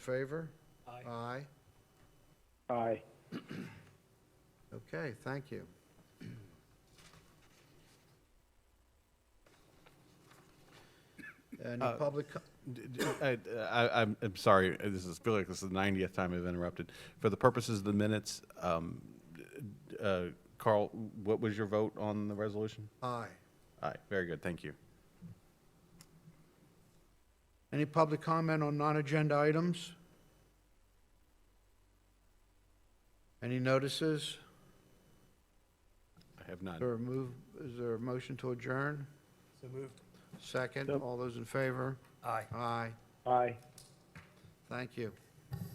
Favor? Aye. Aye. Aye. Okay, thank you. Any Uh, public, co- D- d- I, I- I'm, I'm sorry, uh, this is, I feel like this is the 90th time I've interrupted. For the purposes of the minutes, um, d- d- uh, Carl, what was your vote on the resolution? aye. Aye, very good, thank you. Any public comment on non-agenda items? Any notices? I have none. Or move, is there a motion to adjourn? So moved. Second, Yep. all those in favor? Aye. Aye, Aye. thank you.